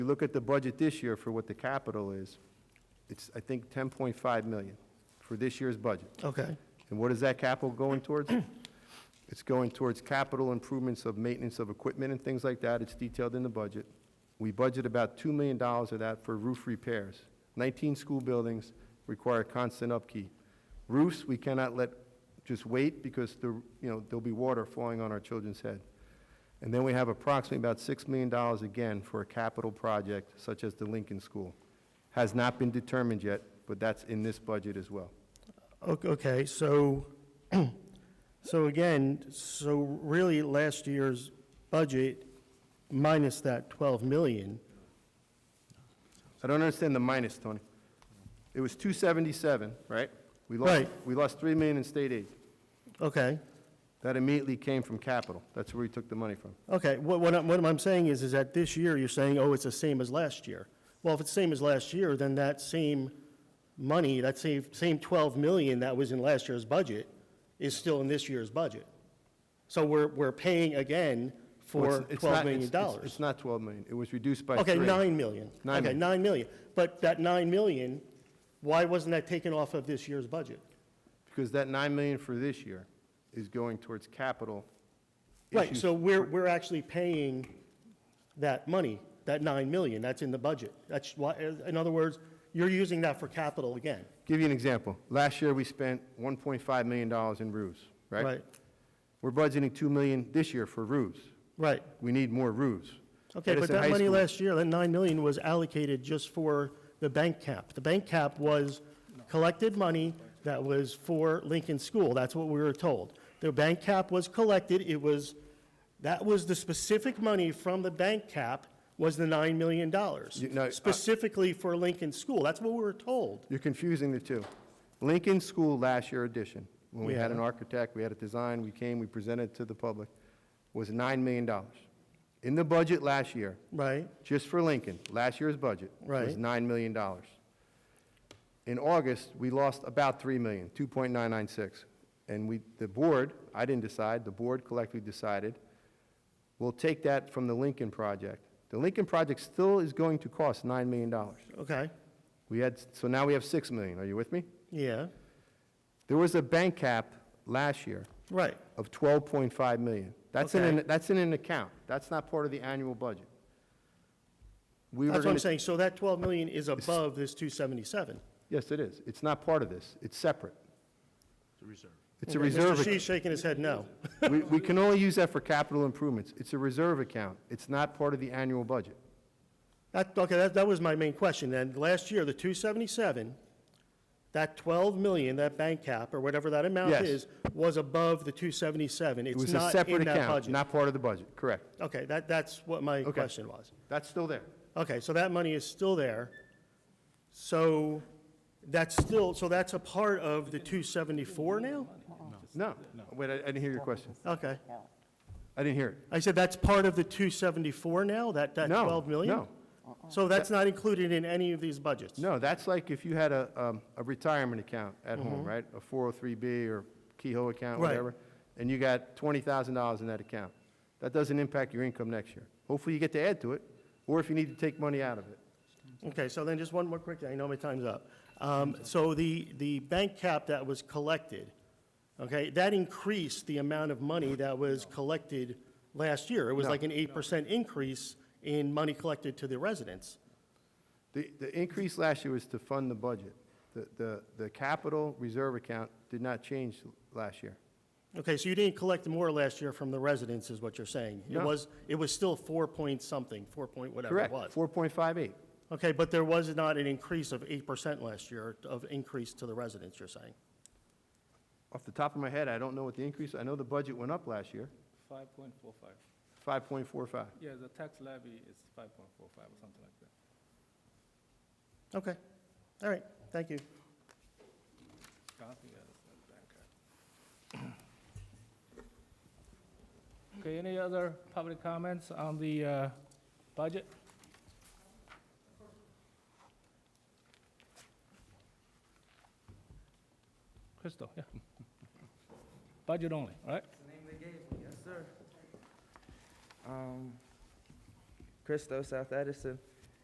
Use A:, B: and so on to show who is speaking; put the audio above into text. A: You look at the budget this year for what the capital is, it's, I think, 10.5 million for this year's budget.
B: Okay,
A: And what is that capital going towards? It's going towards capital improvements of maintenance of equipment and things like that. It's detailed in the budget. We budget about $2 million of that for roof repairs. 19 school buildings require constant upkeep. Roofs, we cannot let just wait because the, you know, there'll be water falling on our children's head. And then we have approximately about $6 million again for a capital project such as the Lincoln School. Has not been determined yet, but that's in this budget as well.
B: O- okay, so, so again, so really last year's budget minus that 12 million,
A: I don't understand the minus, Tony. It was 277, right? We lost,
B: Right.
A: we lost 3 million in state aid.
B: okay,
A: That immediately came from capital. That's where we took the money from.
B: okay, what, what I'm, what I'm saying is, is that this year, you're saying, oh, it's the same as last year. Well, if it's the same as last year, then that same money, that same, same 12 million that was in last year's budget is still in this year's budget. So we're, we're paying again
A: Well,
B: for
A: it's- it's
B: 12
A: not-
B: million
A: it's- it's-
B: dollars.
A: It's not 12 million. It was reduced by 3.
B: Okay, 9 million.
A: Nine
B: Okay,
A: million.
B: 9 million. But that 9 million, why wasn't that taken off of this year's budget?
A: Because that 9 million for this year is going towards capital
B: Right,
A: issues.
B: so we're, we're actually paying that money, that 9 million, that's in the budget. That's why, in other words, you're using that for capital again,
A: Give you an example. Last year, we spent 1.5 million dollars in roofs, right?
B: right?
A: We're budgeting 2 million this year for roofs.
B: Right.
A: We need more roofs.
B: Okay, but
A: Edison High
B: that money
A: School-
B: last year, that 9 million was allocated just for the bank cap. The bank cap was collected money that was for Lincoln School, that's what we were told. The bank cap was collected, it was, that was the specific money from the bank cap was the $9
A: You- no, I-
B: million. Specifically for Lincoln School, that's what we were told.
A: You're confusing the two. Lincoln School last year addition, when we had an
B: Yeah.
A: architect, we had a design, we came, we presented to the public, was $9 million. In the budget last year,
B: Right,
A: just for Lincoln, last year's budget was
B: Right.
A: $9 million. In August, we lost about 3 million, 2.996. And we, the board, I didn't decide, the board collectively decided, we'll take that from the Lincoln project. The Lincoln project still is going to cost $9 million.
B: okay,
A: We had, so now we have 6 million. Are you with me?
B: yeah,
A: There was a bank cap last year
B: right,
A: of 12.5 million. That's in, an
B: Okay.
A: that's in an account. That's not part of the annual budget. We were
B: that's what I'm
A: gonna-
B: saying, so that 12 million is above this 277.
A: Yes, it is. It's not part of this. It's separate. It's a
B: Okay,
A: reserve.
B: Mr.
A: It's a
B: Shee's
A: reserve.
B: shaking his head no.
A: ac- We, we can only use that for capital improvements. It's a reserve account. It's not part of the annual budget.
B: That, okay, that, that was my main question, then. Last year, the 277, that 12 million, that bank cap, or whatever that amount
A: Yes.
B: is, was above the 277.
A: It
B: It's
A: was a
B: not in
A: separate
B: that
A: account,
B: budget.
A: not part of the budget, correct.
B: Okay, that, that's what my
A: Okay.
B: question was.
A: That's still there.
B: Okay, so that money is still there. So that's still, so that's a part of the 274 now?
A: No, wait, I I didn't hear your question.
B: Okay.
A: I didn't hear it.
B: I said that's part of the 274 now, that, that
A: No,
B: 12 million?
A: no.
B: So that's not included in any of these budgets?
A: No, that's like if you had a, um, a retirement account at home, right? A 403B or Kehoe account,
B: Mm-hmm. Right.
A: whatever, and you got $20,000 in that account. That doesn't impact your income next year. Hopefully, you get to add to it, or if you need to take money out of it.
B: Okay, so then just one more quick, thing. I know my time's up. Um, So the, the bank cap that was collected, okay, that increased the amount of money that was collected last year. It was
A: No.
B: like an 8% increase in money collected to the residents.
A: The, the increase last year was to fund the budget. The, the, the capital reserve account did not change last year.
B: Okay, so you didn't collect more last year from the residents, is what you're saying? It
A: No.
B: was, it was still 4 point something, 4 point whatever it
A: Correct,
B: was.
A: 4.58.
B: Okay, but there was not an increase of 8% last year of increase to the residents, you're saying?
A: Off the top of my head, I don't know what the increase, I know the budget went up last year,
C: 5.45.
A: 5.45.
C: Yeah, the tax levy is 5.45 or something like that.
B: Okay, all right, thank you.
C: Something else than bank. Okay, any other public comments on the uh, budget? Crystal, yeah. Budget only, right?
D: Name they gave me, yes, sir. Um, Christo, South Edison.